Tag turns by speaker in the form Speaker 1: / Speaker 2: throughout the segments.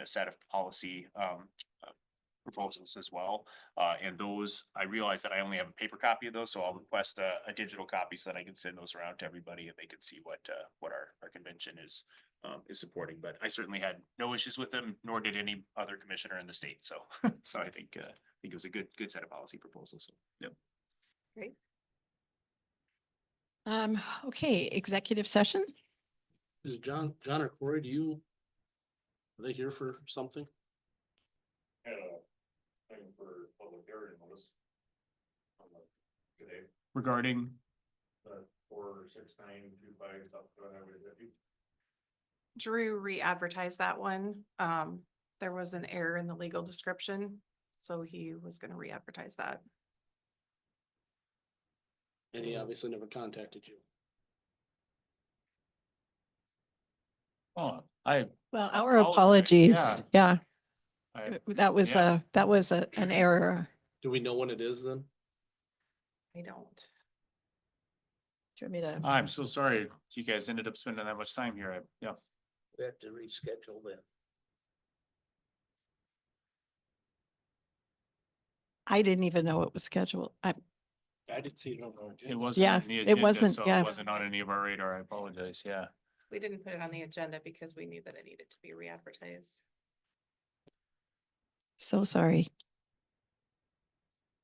Speaker 1: a set of policy um uh, proposals as well. Uh, and those, I realize that I only have a paper copy of those, so I'll request a, a digital copy so that I can send those around to everybody and they can see what uh, what our, our convention is um, is supporting, but I certainly had no issues with them, nor did any other commissioner in the state, so, so I think uh, I think it was a good, good set of policy proposals, so.
Speaker 2: Um, okay, executive session?
Speaker 3: Is John, John or Corey, do you? Are they here for something?
Speaker 4: had a thing for public hearing notice. on the- Today,
Speaker 1: Regarding
Speaker 4: the four, six, nine, two, five, up to highway fifty.
Speaker 5: Drew re-advertised that one. Um, there was an error in the legal description, so he was gonna re-advertise that.
Speaker 3: And he obviously never contacted you.
Speaker 6: Oh, I,
Speaker 2: Well, our
Speaker 6: apologize,
Speaker 2: apologies. Yeah,
Speaker 6: I,
Speaker 2: that was
Speaker 6: Yeah.
Speaker 2: a, that was a, an error.
Speaker 3: Do we know when it is then?
Speaker 5: I don't.
Speaker 2: Do you want me to?
Speaker 6: I'm so sorry you guys ended up spending that much time here. I, yeah.
Speaker 3: We have to reschedule then.
Speaker 2: I didn't even know it was scheduled. I,
Speaker 3: I didn't see it on our
Speaker 6: It
Speaker 3: agenda.
Speaker 6: wasn't.
Speaker 2: Yeah,
Speaker 6: on the
Speaker 2: it
Speaker 6: agenda,
Speaker 2: wasn't-
Speaker 6: so
Speaker 2: yeah.
Speaker 6: It wasn't on any of our radar. I apologize. Yeah.
Speaker 5: We didn't put it on the agenda because we knew that it needed to be re-advertised.
Speaker 2: so sorry.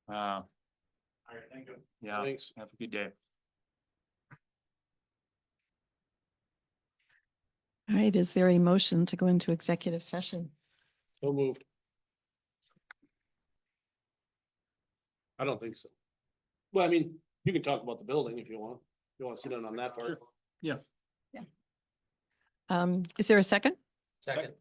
Speaker 6: Uh,
Speaker 4: All right, thank you.
Speaker 6: yeah.
Speaker 3: Thanks.
Speaker 6: Have a good day.
Speaker 2: All right, is there a motion to go into executive session?
Speaker 3: So moved. I don't think so. Well, I mean, you can talk about the building if you want. You want to sit in on that part.
Speaker 2: Um, is there a second?
Speaker 3: Second.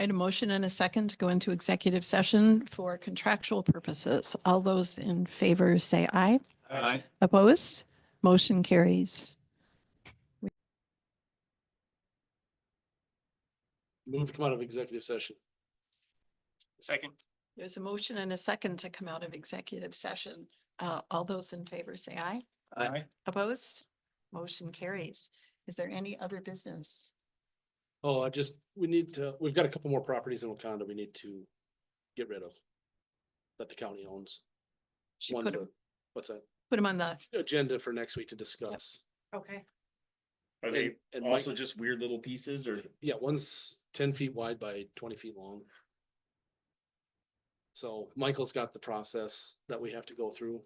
Speaker 2: And a motion and a second to go into executive session for contractual purposes. All those in favor say aye.
Speaker 6: Bye.
Speaker 2: Opposed? Motion carries.
Speaker 3: Move to come out of executive session.
Speaker 1: second,
Speaker 2: There's a motion and a second to come out of executive session. Uh, all those in favor say aye.
Speaker 3: Aye.
Speaker 2: Opposed? Motion carries. Is there any other business?
Speaker 3: Oh, I just, we need to, we've got a couple more properties in Wakanda we need to get rid of. That the county owns.
Speaker 2: Should
Speaker 3: One's
Speaker 2: put
Speaker 3: a-
Speaker 2: them,
Speaker 3: What's that?
Speaker 2: put 'em on the,
Speaker 3: Agenda for next week to discuss.
Speaker 5: Okay,
Speaker 1: are
Speaker 3: And,
Speaker 1: they
Speaker 3: and Mike,
Speaker 1: also just weird little pieces or?
Speaker 3: yeah, one's ten feet wide by twenty feet long. So Michael's got the process that we have to go through.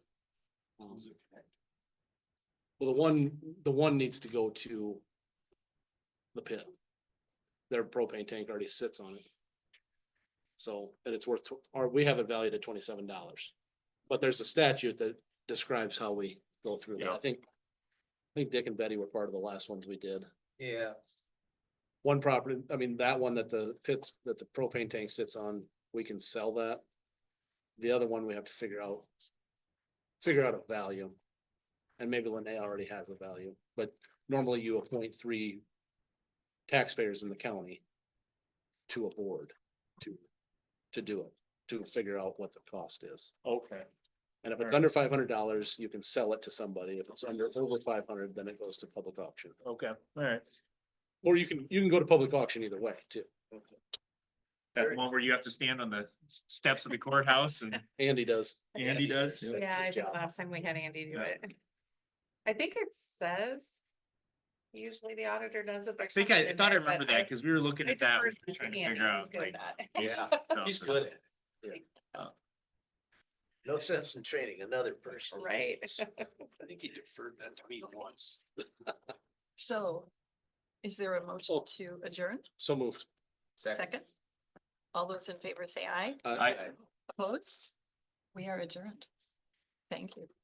Speaker 3: Um, Well, the one, the one needs to go to the pit. Their propane tank already sits on it. So, and it's worth, tw- or we have it valued at twenty-seven dollars. But there's a statute that describes how we go through that. I
Speaker 1: Yeah.
Speaker 3: think, I think Dick and Betty were part of the last ones we did.
Speaker 7: Yeah,
Speaker 3: One property, I mean, that one that the pits, that the propane tank sits on, we can sell that. The other one we have to figure out. Figure out a value. And maybe Lene already has a value, but normally you appoint three. Taxpayers in the county. To a board, to, to do it, to figure out what the cost is.
Speaker 1: Okay.
Speaker 3: And if it's
Speaker 1: Alright.
Speaker 3: under five hundred dollars, you can sell it to somebody. If it's under over five hundred, then it goes to public auction.
Speaker 1: Okay, all right.
Speaker 3: Or you can, you can go to public auction either way too.
Speaker 1: That one where you have to stand on the s- steps of the courthouse and
Speaker 3: Andy does.
Speaker 1: Andy does?
Speaker 5: yeah, I think
Speaker 3: job.
Speaker 5: last time we had Andy do
Speaker 1: Yeah.
Speaker 5: it. I think it says, usually the auditor does it.
Speaker 1: I think I, I thought I remember that because we were looking
Speaker 5: I
Speaker 1: at that,
Speaker 5: deferred to
Speaker 1: trying to
Speaker 5: Andy.
Speaker 1: figure
Speaker 5: He's
Speaker 1: out
Speaker 5: good
Speaker 1: like.
Speaker 5: at that.
Speaker 1: basic stuff,
Speaker 7: he's
Speaker 1: so-
Speaker 7: good at it.
Speaker 3: Yeah.
Speaker 1: Oh.
Speaker 7: No sense in training another person.
Speaker 5: Right.
Speaker 7: I think he deferred that to me once.
Speaker 2: so is there a motion to adjourn?
Speaker 3: So moved.
Speaker 2: Second? All those in favor say aye.
Speaker 3: Uh,
Speaker 1: I-
Speaker 2: Opposed? We are adjourned. Thank you.